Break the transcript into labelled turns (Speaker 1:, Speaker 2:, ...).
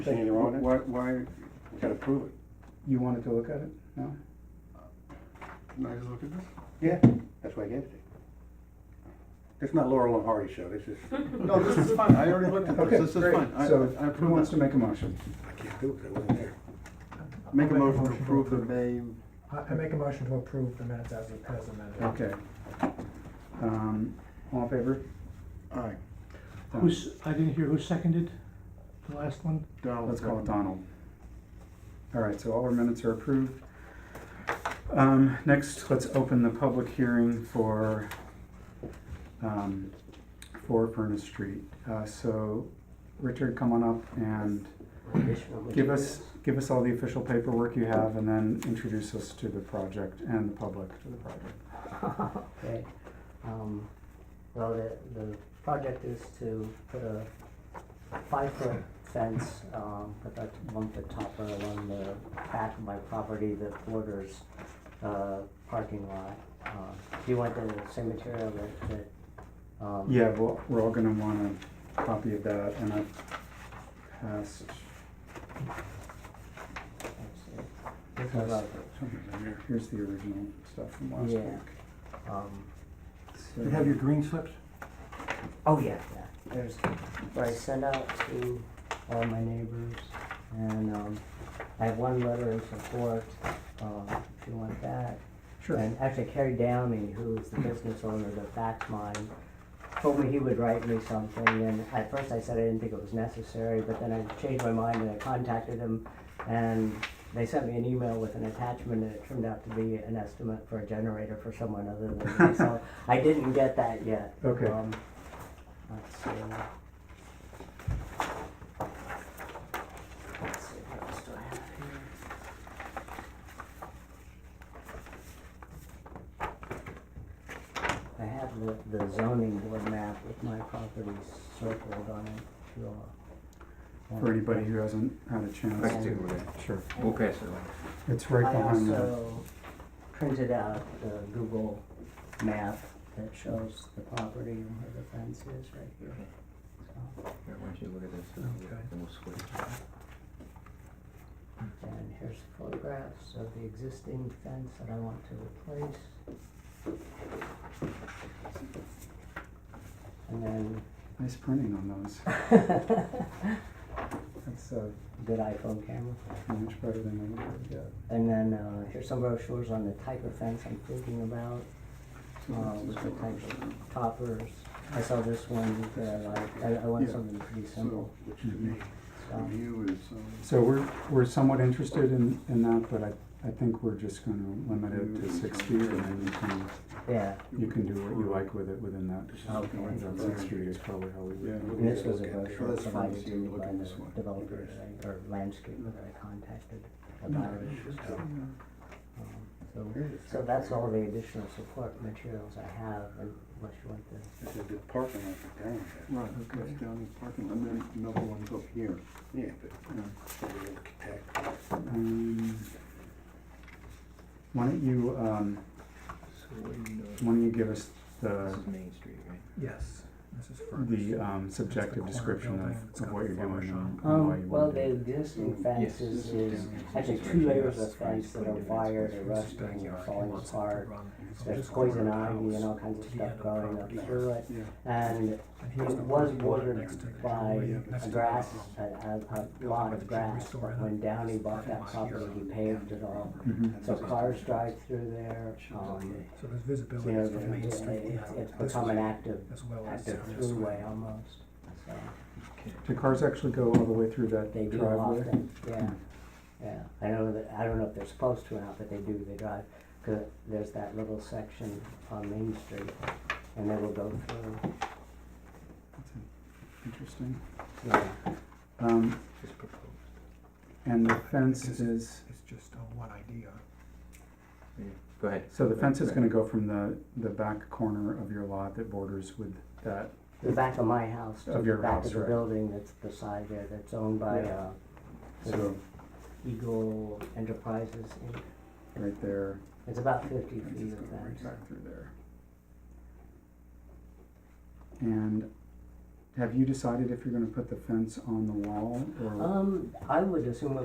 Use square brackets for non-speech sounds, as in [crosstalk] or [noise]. Speaker 1: Anything wrong with it?
Speaker 2: Why, why, we gotta prove it.
Speaker 1: You wanted to look at it? No?
Speaker 2: Can I just look at this?
Speaker 1: Yeah.
Speaker 2: That's why I gave it to you. It's not Laurel and Hardy show, this is. No, this is fine, I already looked at
Speaker 1: Okay,
Speaker 2: this, this is
Speaker 1: great.
Speaker 2: fine. I-
Speaker 1: So
Speaker 2: I- I
Speaker 1: who
Speaker 2: approve
Speaker 1: wants
Speaker 2: it.
Speaker 1: to make a motion?
Speaker 2: I can't do it, 'cause I wasn't there. Make a motion to approve the May,
Speaker 3: I I make a motion to approve the minutes as as amended.
Speaker 1: Okay. Um, all in favor?
Speaker 2: alright,
Speaker 1: Done.
Speaker 4: Who's, I didn't hear who seconded the last one?
Speaker 2: Donald.
Speaker 1: Let's call it Donald. All right, so all our minutes are approved. Um, next, let's open the public hearing for, um, for Furnace Street. Uh, so, Richard, come on up and give us, give us all the official paperwork you have and then introduce us to the project and the public to the project.
Speaker 5: Okay, um, well, the, the project is to put a five-foot fence, um, put that one-foot topper along the back of my property that borders, uh, parking lot. Uh, Do you want the same material that, that, um?
Speaker 1: Yeah, well, we're all gonna want a copy of that and I've passed,
Speaker 5: let's see. This is like,
Speaker 1: here's the original stuff from last
Speaker 5: Yeah.
Speaker 1: week.
Speaker 5: um,
Speaker 1: So-
Speaker 2: You have your green slips?
Speaker 5: oh, yeah, yeah, there's, where I send out to all my neighbors, and, um, I have one letter in support, um, if you want that.
Speaker 1: Sure.
Speaker 5: And actually Kerry Downey, who's the business owner that backs mine, told me he would write me something and at first I said I didn't think it was necessary, but then I changed my mind and I contacted him and they sent me an email with an attachment and it turned out to be an estimate for a generator for someone other than me,
Speaker 1: [laughs]
Speaker 5: so I didn't get that yet.
Speaker 1: Okay.
Speaker 5: Um, Let's see. Let's see, what else do I have here? I have the, the zoning board map with my properties circled on it, if you all want.
Speaker 1: For anybody who hasn't had a chance.
Speaker 5: Let's do
Speaker 1: Sure.
Speaker 6: We'll pass it on.
Speaker 1: It's right
Speaker 5: I
Speaker 1: behind the,
Speaker 5: also printed out the Google map that shows the property and where the fence is right here. So,
Speaker 6: Here, why don't you look at this, and we'll-
Speaker 3: Okay.
Speaker 6: and we'll switch.
Speaker 5: And here's photographs of the existing fence that I want to replace. And then,
Speaker 1: nice printing on those. That's uh,
Speaker 5: [laughs] good iPhone camera.
Speaker 1: much better than I would get.
Speaker 5: And then uh, here's some brochures on the type of fence I'm thinking about, uh, with the types of toppers. I saw this one that I, I- I want
Speaker 2: Yeah.
Speaker 5: something pretty
Speaker 2: So,
Speaker 5: simple,
Speaker 2: which to me,
Speaker 5: so.
Speaker 2: to you is, um,
Speaker 1: So we're, we're somewhat interested in, in that, but I, I think we're just gonna limit it to
Speaker 2: Mm.
Speaker 1: six feet and then you can,
Speaker 5: Yeah,
Speaker 1: you can do what you like with it within that.
Speaker 2: this is
Speaker 5: Okay.
Speaker 2: looking right
Speaker 1: That
Speaker 2: from
Speaker 1: six
Speaker 2: there.
Speaker 1: feet is probably how we
Speaker 2: Yeah,
Speaker 1: would.
Speaker 2: look
Speaker 5: and this
Speaker 2: at-
Speaker 5: was a
Speaker 2: look at there.
Speaker 5: brochure
Speaker 2: That's fine,
Speaker 5: provided
Speaker 2: so
Speaker 5: to
Speaker 2: you
Speaker 5: me
Speaker 2: look
Speaker 5: by
Speaker 2: at this
Speaker 5: the
Speaker 2: one.
Speaker 5: developer that I, or landscaper that I contacted about it.
Speaker 2: Mm-hmm.
Speaker 5: Um, So, so that's all the additional support materials I have, unless you want the,
Speaker 2: This is the parking lot that's down there.
Speaker 1: Right,
Speaker 2: That's down in the parking lot, and then another one's up here. uh, Yeah, but, you know, so we look at that.
Speaker 1: Um, Why don't you, um,
Speaker 6: So what do you know?
Speaker 1: why don't you give us the,
Speaker 6: This is Main Street, right?
Speaker 3: Yes, this is first.
Speaker 1: the, um, subjective
Speaker 3: corner
Speaker 1: description
Speaker 3: building.
Speaker 1: of,
Speaker 3: It's
Speaker 1: of
Speaker 3: got
Speaker 1: what
Speaker 3: the
Speaker 1: you're doing
Speaker 3: flower
Speaker 1: and
Speaker 3: shop.
Speaker 1: and why
Speaker 5: Um,
Speaker 1: you
Speaker 5: well,
Speaker 1: want
Speaker 5: the
Speaker 1: to do
Speaker 5: existing
Speaker 6: Mm, yes,
Speaker 5: fence
Speaker 6: this
Speaker 5: is,
Speaker 6: is
Speaker 5: is
Speaker 6: down here.
Speaker 5: actually
Speaker 6: This is
Speaker 5: two
Speaker 6: right here.
Speaker 5: layers of
Speaker 6: That's right.
Speaker 5: fence that are
Speaker 6: It's
Speaker 5: wired or
Speaker 6: right.
Speaker 5: rusting or falling apart.
Speaker 3: So
Speaker 5: There's
Speaker 3: this corner of
Speaker 5: poison
Speaker 3: the
Speaker 5: ivy and all
Speaker 3: house
Speaker 5: kinds
Speaker 3: to
Speaker 5: of
Speaker 3: the
Speaker 5: stuff
Speaker 3: end the
Speaker 5: growing up
Speaker 3: property.
Speaker 5: through it.
Speaker 2: Yeah.
Speaker 5: And
Speaker 3: And
Speaker 5: it
Speaker 3: here's the
Speaker 5: was
Speaker 3: parking lot
Speaker 5: watered
Speaker 3: next to the
Speaker 5: by
Speaker 3: driveway,
Speaker 5: a
Speaker 3: next to the
Speaker 5: grass,
Speaker 3: house.
Speaker 5: a, a, a
Speaker 3: Building
Speaker 5: lot
Speaker 3: with the jewelry
Speaker 5: of grass,
Speaker 3: store
Speaker 5: but
Speaker 3: and
Speaker 5: when Downey
Speaker 3: this
Speaker 5: bought that
Speaker 3: parking lot
Speaker 5: property, he
Speaker 3: here.
Speaker 5: paved it all.
Speaker 1: Mhm.
Speaker 5: So cars drive through there, um,
Speaker 3: So there's
Speaker 5: you
Speaker 3: visibility
Speaker 5: know,
Speaker 3: from Main
Speaker 5: it's,
Speaker 3: Street, yeah.
Speaker 5: it's- it's
Speaker 3: this
Speaker 5: become an
Speaker 3: way,
Speaker 5: active,
Speaker 3: As well as.
Speaker 5: active
Speaker 3: this way.
Speaker 5: throughway almost, so.
Speaker 1: Do cars actually go all the way through that
Speaker 5: They
Speaker 1: driveway?
Speaker 5: do often, yeah, yeah. I know that, I don't know if they're supposed to or not, but they do, they drive. 'Cause there's that little section on Main Street and they will go through,
Speaker 1: That's in- Interesting.
Speaker 5: yeah.
Speaker 1: Um,
Speaker 6: It's proposed.
Speaker 1: and the fence is,
Speaker 3: It's just uh, one idea.
Speaker 6: Yeah. Go ahead.
Speaker 1: so the fence is gonna go from the, the back corner of your lot that borders with that,
Speaker 5: The back of my house to
Speaker 1: Of
Speaker 5: the
Speaker 1: your
Speaker 5: back
Speaker 1: house,
Speaker 5: of the
Speaker 1: right.
Speaker 5: building that's beside there, that's owned by,
Speaker 1: Yeah.
Speaker 5: uh,
Speaker 1: so,
Speaker 5: Eagle Enterprises, Inc.
Speaker 1: right there.
Speaker 5: It's about fifty
Speaker 1: Fence is
Speaker 5: feet of
Speaker 1: going right
Speaker 5: fence.
Speaker 1: back through there. And have you decided if you're gonna put the fence on the wall or?
Speaker 5: Um, I would assume